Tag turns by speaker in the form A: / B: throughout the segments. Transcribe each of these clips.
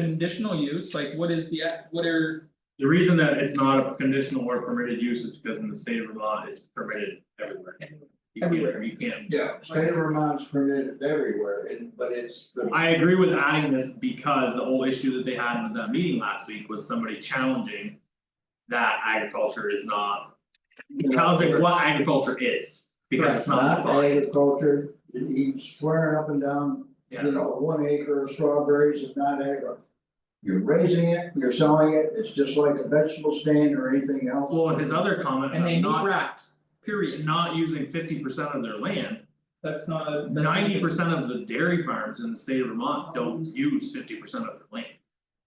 A: Conditional use, like what is the, a- what are,
B: The reason that it's not a conditional or permitted use is because in the state of Vermont, it's permitted everywhere. You
A: Everywhere.
B: can't, you can't.
C: Yeah, state of Vermont's permitted everywhere, and but it's the.
B: I agree with adding this because the whole issue that they had in that meeting last week was somebody challenging. That agriculture is not, challenging what agriculture is, because it's not
C: Not
B: defined,
C: agriculture, he's swearing up and down,
B: yeah.
C: you know, one acre of strawberries is not agri. You're raising it, you're selling it, it's just like a vegetable stand or anything else.
B: Well, his other comment
A: and they
B: of
A: need
B: Uh, not
A: racks, period,
B: not using fifty percent of their land,
A: that's not a, that's not a-
B: ninety percent of the dairy farms in the state of Vermont don't use fifty percent of their land.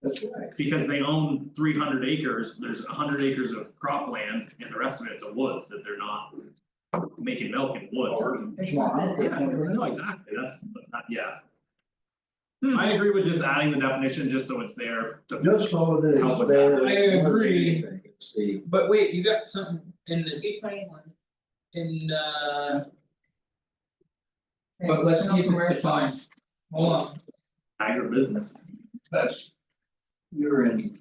C: That's right,
B: Because they own three hundred acres, there's hundred acres of cropland and the rest of it's a woods that they're not making milk in woods.
D: There's
C: Wow.
D: nothing-
B: Yeah, no, exactly, that's, that- yeah. I agree with just adding the definition just so it's there to-
C: just so that
B: Help
C: it's
B: with
C: there.
B: that.
A: I agree.
C: It's the-
A: But wait, you got something in this,
D: Two twenty-one.
A: in uh, but let's see if it's defined, hold on,
B: agribusiness.
C: that's. You're in.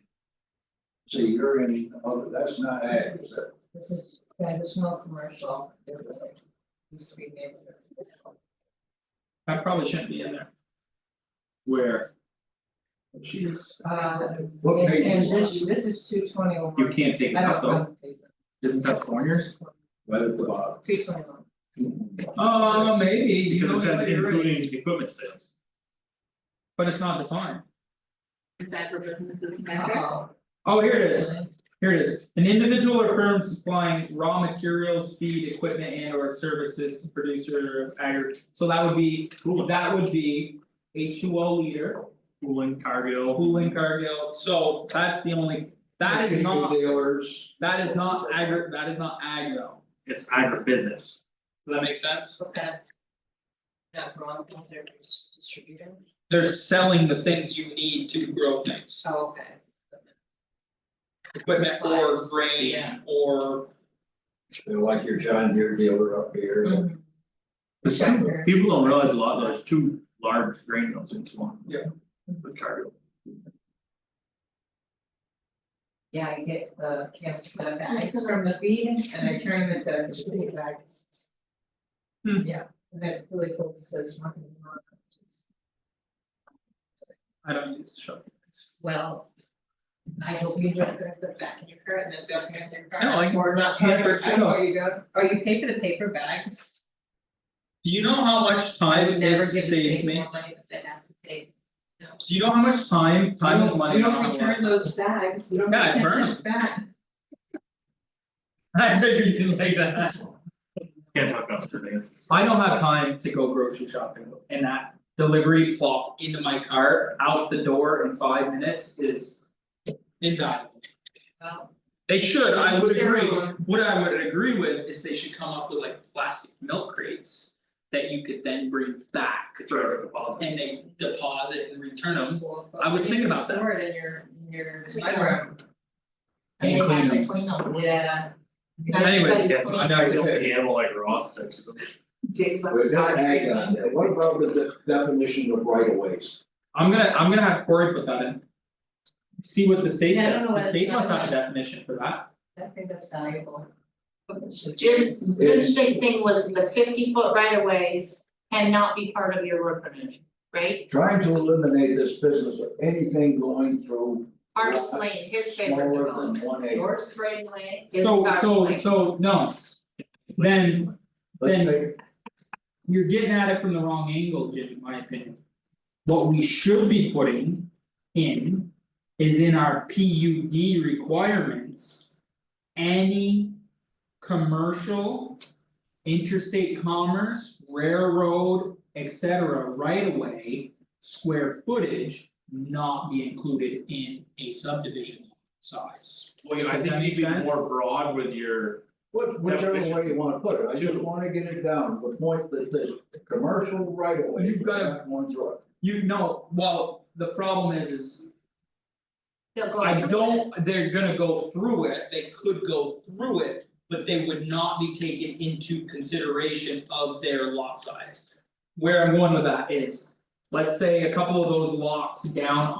C: See, you're in, oh, that's not ag, is it?
D: This is traditional commercial. neighborhood. Used to be neighborhood.
A: that probably shouldn't be in there.
B: Where
A: She's,
D: Uh,
C: What
D: and
C: page
D: and
C: is
D: this, this is two twenty-one.
B: you can't take it
D: I
B: out
D: don't
B: though,
D: know.
B: isn't that corners?
C: Right at the bottom.
D: Two twenty-one.
A: oh, maybe, you
B: Because
A: know,
B: it says
A: maybe you're right.
B: including equipment sales.
A: but it's not defined.
E: Is that for businesses
D: Oh.
A: Oh, here it is, Here it is, an individual or firm supplying raw materials, feed, equipment and or services to producer of agri, so that would be, that would be. H two O leader,
B: Cooling, cargo,
A: Hoolan Cargill, so that's the only, that is
C: Chicken
A: not,
C: Dealers.
A: that is not agri, that is not agro,
B: it's agribusiness.
A: does that make sense?
D: Okay. Not wrong, because they're dis- distributor.
A: They're selling the things you need to grow things,
D: Oh, okay.
A: equipment or
D: Supplies, yeah.
A: grain or,
C: They're like your John Deere dealer up here.
D: Mhm.
C: December.
B: People don't realize a lot, there's two large grain mills in Swan.
A: Yeah.
B: With cargo.
D: Yeah, I get the cans for the bags from the feed and I turn them into food bags.
A: Hmm.
D: Yeah, and that's really cool, it says one. and one, which is-
A: I don't use shovel.
D: Well. I hope you don't put it back in your car and then don't have their car.
A: No, I
D: Or not.
A: can't
D: or-
A: fix it
D: I know
A: up.
D: where you go, oh, you pay for the paper bags.
A: Do you know how much
D: I
A: time
D: would never
A: it
D: give the
A: saves
D: state
A: me?
D: more money that they have to pay. No.
A: Do you know how much time, time is money, I don't know
D: You don't return those bags, you don't
A: Yeah, I
D: return
A: burn
D: those back.
A: I figured you didn't like that.
B: Can't talk about certain things.
A: I don't have time to go grocery shopping and that delivery flop into my cart, out the door in five minutes is. Invaluable.
D: Well,
A: They should, I
D: Yeah,
A: would
D: sure.
A: agree, what I would agree with is they should come up with like plastic milk crates. That you could then bring back
B: Direct deposit.
A: and they deposit and return them,
D: well,
A: I was
D: you
A: thinking
D: can
A: about that.
D: Store it in your, in your.
E: Clean
D: bedroom.
A: And clean
E: And they
A: them.
E: have to clean up.
D: Yeah.
A: anyway,
E: Everybody
B: Yes,
E: clean.
B: I know, you don't handle like raw sticks.
D: Jake,
A: Hmm.
D: but
C: We've
D: it's
C: got
D: not
C: ag on there. What about the de- definition of right of ways?
A: I'm gonna, I'm gonna have Corey put that in. See what the state
D: Yeah, I don't
A: says,
D: know why
A: the
D: it's
A: state
D: not
A: must have a
D: in
A: definition for that,
D: I think that's valuable.
E: Jim's Jim's big thing was the fifty foot right of ways cannot be part of your road frontage, right?
C: Trying to eliminate this business of anything going through
E: Artist lane, his favorite
C: smaller
E: development,
C: than one acre.
E: yours right away, his
A: so
E: garden
A: so
E: lane.
A: so no, then.
C: Let's
A: Then-
C: make,
A: You're getting at it from the wrong angle, Jim, in my opinion. What we should be putting in is in our P U D requirements. Any commercial, interstate commerce, railroad, et cetera, right away, Square footage not be included in a subdivision size.
B: Well, you, I
A: Does
B: think
A: that
B: you
A: make
B: need to be
A: sense?
B: more broad with your,
C: what- whichever way you
B: Definition.
C: wanna put it, I just
B: Two.
C: wanna get it down, the point that the commercial right of way.
A: You've got to-
C: One through
A: You know, well, the problem is is
E: They'll go
A: I
E: through
A: don't, they're gonna go through it, they could go through it, but they would not be taken into consideration of their lot size. Where I'm going with that is, let's say a couple of those lots down